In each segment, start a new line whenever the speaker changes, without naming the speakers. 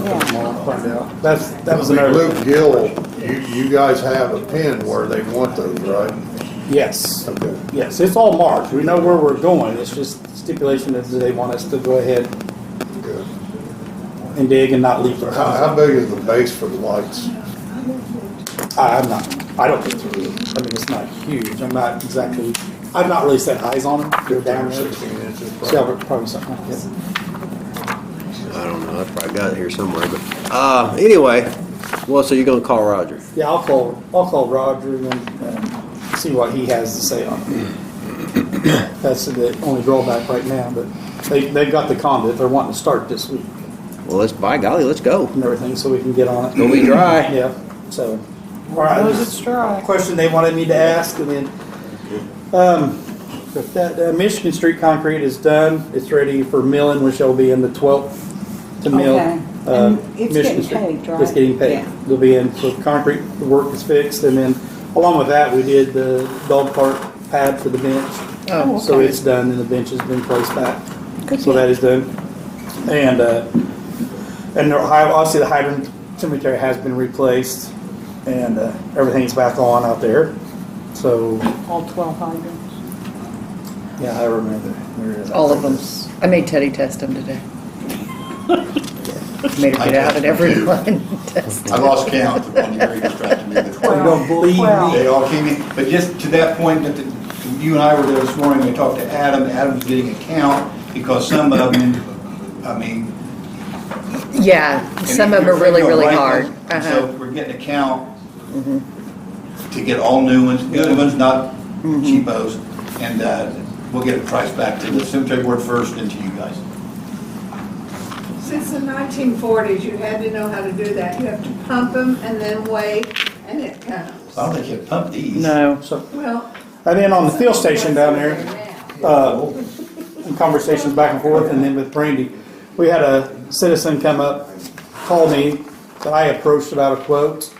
I'll find out. That's, that was another,
Luke Gill, you, you guys have a pin where they want those, right?
yes,
Okay.
yes, it's all marked, we know where we're going, it's just stipulation that they want us to go ahead
good.
and dig and not leave the
How,
house.
how big is the base for the lights?
I, I'm not, I don't get through, I mean, it's not huge, I'm not exactly, I've not really set eyes on them, they're down there.
Sixteen inches. probably.
Yeah, probably something like that.
I don't know, I probably got it here somewhere, but, uh, anyway, well, so you're gonna call Roger?
Yeah, I'll call, I'll call Roger and, uh see what he has to say on it. That's the only drawback right now, but they, they've got the conduit, they're wanting to start this week
Well, let's, by golly, let's go.
and everything, so we can get on it.
Gonna be dry.
Yeah, so.
Those it's dry.
Question they wanted me to ask and then, um, if that, uh, Michigan Street concrete is done, it's ready for milling, which will be in the twelfth to mill.
Okay.
uh,
And
Michigan
it's getting
Street.
paved, right?
It's getting
Yeah.
paid. They'll be in, so concrete, the work is fixed and then along with that, we did the dog park pad for the bench.
Oh,
So
okay.
it's done and the bench has been placed back.
Good
So
deal.
that is done. And, uh, and the hy- obviously the hydrant cemetery has been replaced and, uh, everything's back on out there. So,
All twelve hydrants.
yeah, I remember. Where is it?
All of them. I made Teddy test them today. Made her get out and everyone test.
I lost count the one year he was trying to do the
Oh, You don't believe
Well,
me?
They all came in, but just to that point, that the- you and I were there this morning, we talked to Adam, Adam's getting a count, because some of them, I mean.
Yeah, some of them are really, really hard.
So
Uh-huh. Mm-hmm.
we're getting a count to get all new ones, good ones, not cheapos, and uh, we'll get a price back to the cemetery board first and to you guys.
Since the 1940s, you had to know how to do that. You have to pump them and then wait, and it comes.
Uh,
I don't think you pump these.
No.
So,
Well.
and then on the field station down there, uh, and conversations back and forth, and then with Brandy, we had a citizen come up, call me, that I approached about a quote,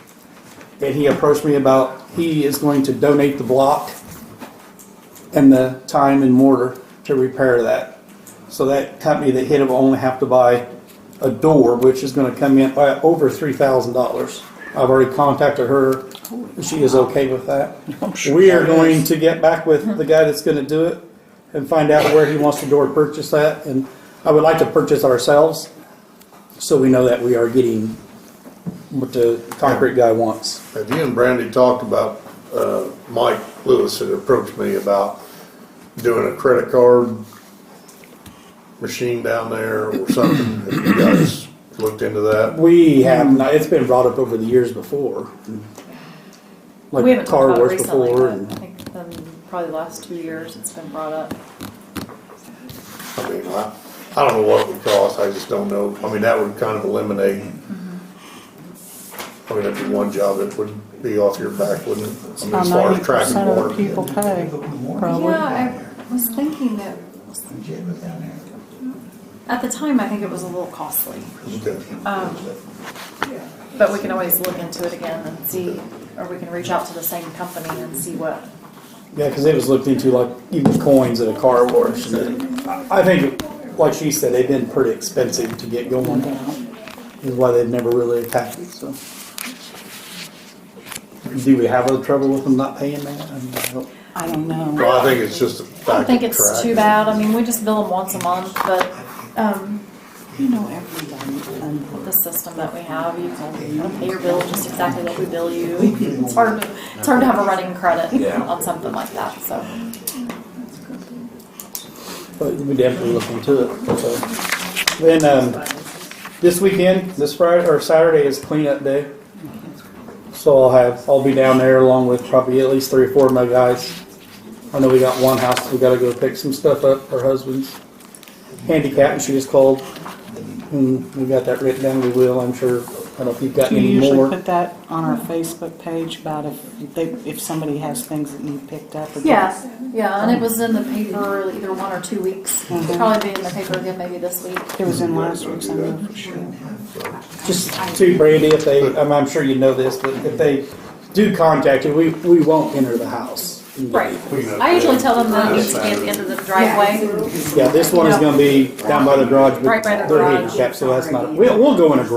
and he approached me about, he is going to donate the block and the time and mortar to repair that. So that company that hit it will only have to buy a door, which is gonna come in by over three thousand dollars. I've already contacted her, she is okay with that. We are going to get back with the guy that's gonna do it and find out where he wants the door purchased at, and I would like to purchase ourselves, so we know that we are getting what the concrete guy wants.
Have you and Brandy talked about, uh, Mike Lewis had approached me about doing a credit card machine down there or something? Have you guys looked into that?
We have not, it's been brought up over the years before.
We
Like
haven't talked
car
about it
wars
recently,
before
but I
and,
think um, probably the last two years it's been brought up.
I mean, I, I don't know what it would cost, I just don't know, I mean, that would kind of eliminate. I mean, that'd be one job that would be off your back, wouldn't it? I mean,
About
as far as
ninety
tracking
percent of the
water.
people pay, probably.
Yeah, I was thinking that, at the time, I think it was a little costly. Um, But we can always look into it again and see, or we can reach out to the same company and see what,
yeah, cause it was looked into like even coins at a car wash. and I I think, like she said, they've been pretty expensive to get going. Is why they've never really attacked it, so. Do we have other trouble with them not paying that? I mean, I don't-
I don't know.
Well, I think it's just a
I don't
fact
think
of
it's too
tracking.
bad. I mean, we just bill them once a month, but um,
You know, everybody.
the system that we have, you can pay your bill just exactly like we bill you. It's hard, to- it's hard to have a running credit on something like that, so.
But we definitely look into it, so. Then, um, this weekend, this Friday, or Saturday is cleanup day. So I'll have, I'll be down there along with probably at least three or four of my guys. I know we got one house, we gotta go pick some stuff up, her husband's handicapped, and she just called. And we got that written down, we will, I'm sure, I don't know if you've got
You
any
usually
more.
put that on our Facebook page about if they, if somebody has things that need picked up. or-
Yeah, yeah, and it was in the paper either one or two weeks. It'll probably be in the paper again maybe this week.
It was in last week's, I know for sure.
Just to Brandy, if they, I'm, I'm sure you know this, but if they do contact you, we, we won't enter the house.
Right. I usually tell them that it needs to be at the end of the driveway.
Yeah, this one is gonna be down by the garage,
Right by
but
the
they're
garage.
handicapped, so that's not, we'll, we'll go in a garage.